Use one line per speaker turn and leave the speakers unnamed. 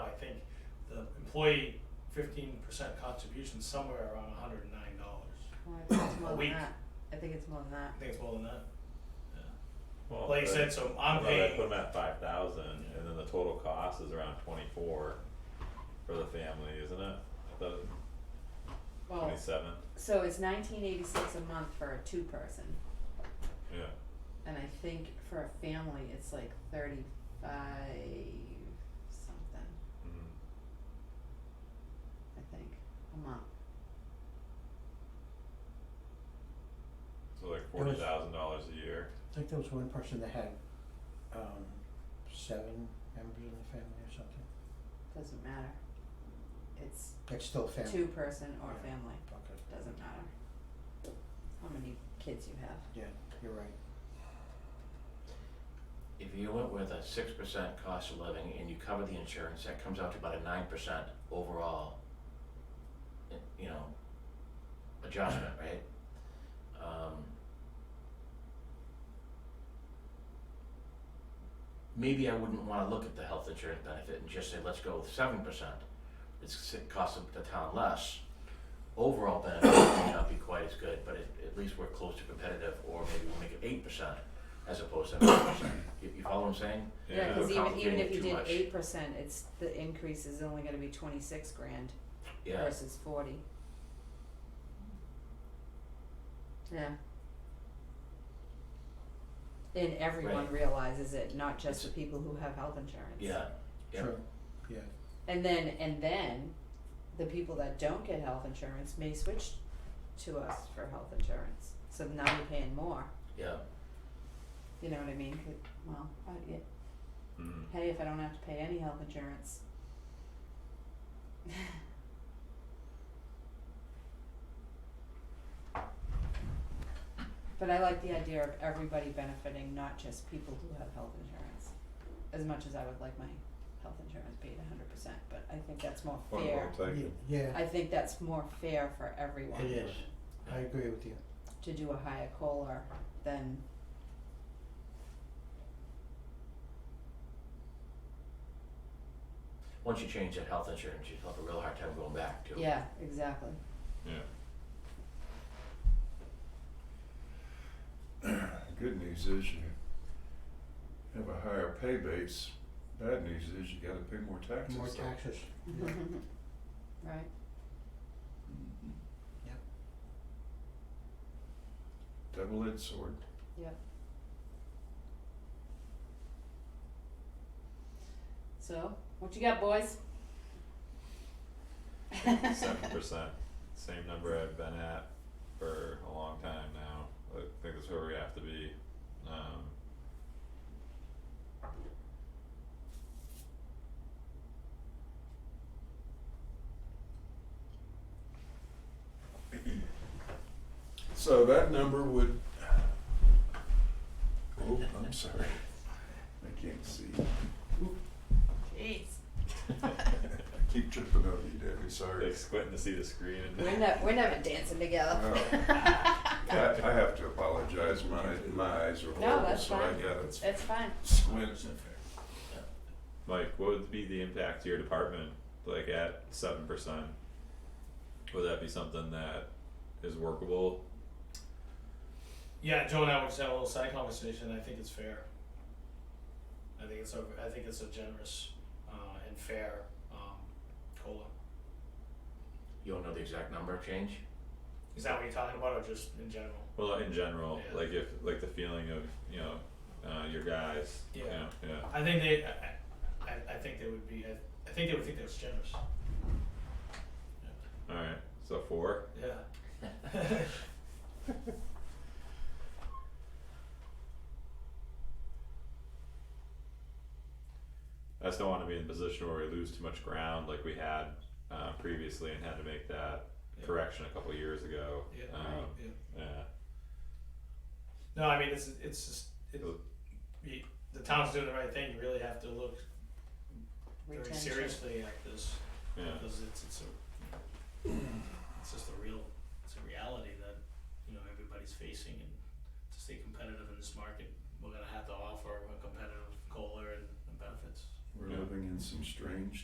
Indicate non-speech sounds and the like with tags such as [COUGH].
employee fifteen percent contribution somewhere around hundred and nine dollars.
Well, I think it's more
A
than
week.
that. I think it's more than that.
I think it's more than that.
Well,
Like you
but-
said, so I'm
well, they
paying-
Put them at five thousand, and then the total cost is around twenty-four for the family, isn't it? I thought it was
Well,
twenty-seven,
so it's nineteen eighty-six a month for a two-person,
yeah,
and I think for a family, it's like thirty-five something,
mm,
I think, a month.
so like
There
forty
was-
thousand dollars a year,
I think there was one person that had um seven members in the family or something.
Doesn't matter. It's
That's still a family.
two-person or
Yeah.
family,
Okay,
doesn't matter. How many kids you have.
yeah, you're right.
If you went with a six percent cost of living and you cover the insurance, that comes out to about a nine percent overall, eh, you know, adjustment, right? Um. Maybe I wouldn't wanna look at the health insurance benefit and just say, let's go with seven percent. It's, it costs the town less. Overall benefit may not be quite as good, but at, at least we're close to competitive, or maybe we'll make it eight percent as opposed to nine percent. You, you follow what I'm saying?
Yeah,
yeah,
cause
We're
even even
complicating
if
it
you
too
did
much.
eight percent, it's, the increase is only gonna be twenty-six grand
Yeah,
versus forty. Yeah. And everyone
Right.
realizes it, not just the
It's-
people who have health insurance.
yeah, yeah.
True, yeah,
And then, and then, the people that don't get health insurance may switch to us for health insurance, so now you're paying more,
yeah.
you know what I mean? 'Cause- Well, I, yeah,
mm,
hey, if I don't have to pay any health insurance. But I like the idea of everybody benefiting, not just people who have health insurance, as much as I would like my health insurance paid a hundred percent, but I think that's more
Point
fair.
well taken.
Ye- yeah,
I think that's more fair for
it
everyone
is. I agree with you.
to do a higher COLA than
Once you change that health insurance, you'd have a real hard time going back to.
Yeah, exactly.
yeah.
Good news is you have a higher pay base. Bad news is you gotta pay more taxes.
More
though.
taxes, yeah.
[LAUGHS] Right,
Mhm.
Yep.
Double-edged sword.
so what you got, boys?
seven percent, same number I've been at for a long time now, I think that's where we have to be, um. [LAUGHS]
So that number would, oh, I'm sorry, I can't see.
Jeez.
I keep tripping over you, Debbie, sorry.
Like squinting to see the screen and.
We're never, we're never dancing together. [LAUGHS]
I, I have to apologize, my, my eyes are
No,
horrible,
that's
so I
fine.
gotta
It's fine.
squint.
Like, what would be the impact to your department, like at seven percent? Would that be something that is workable?
Yeah, Joe and I were just having a little side conversation. I think it's fair. I think it's a I think it's a generous uh, and fair um, cola.
You don't know the exact number change?
Is that what you're talking about, or just in general?
Well, in general,
Yeah.
like if, like the feeling of, you know, uh, your guys, you
Yeah.
know, yeah,
I think they. I, I, I think they would be. I, I think they would think that's generous.
alright, so four,
Yeah. [LAUGHS]
I just don't wanna be in a position where we lose too much ground like we had, uh, previously and had to make that
Yeah.
correction a couple years ago,
Yeah.
um,
Yeah.
yeah,
No, I mean it's it's just it,
Look.
you, the town's doing the right thing. You really have to look very
Retention.
seriously at this
yeah.
because it's it's a it's just a real it's a reality that you know everybody's facing and to stay competitive in this market, we're gonna have to offer a competitive cola and, and benefits.
We're living in some strange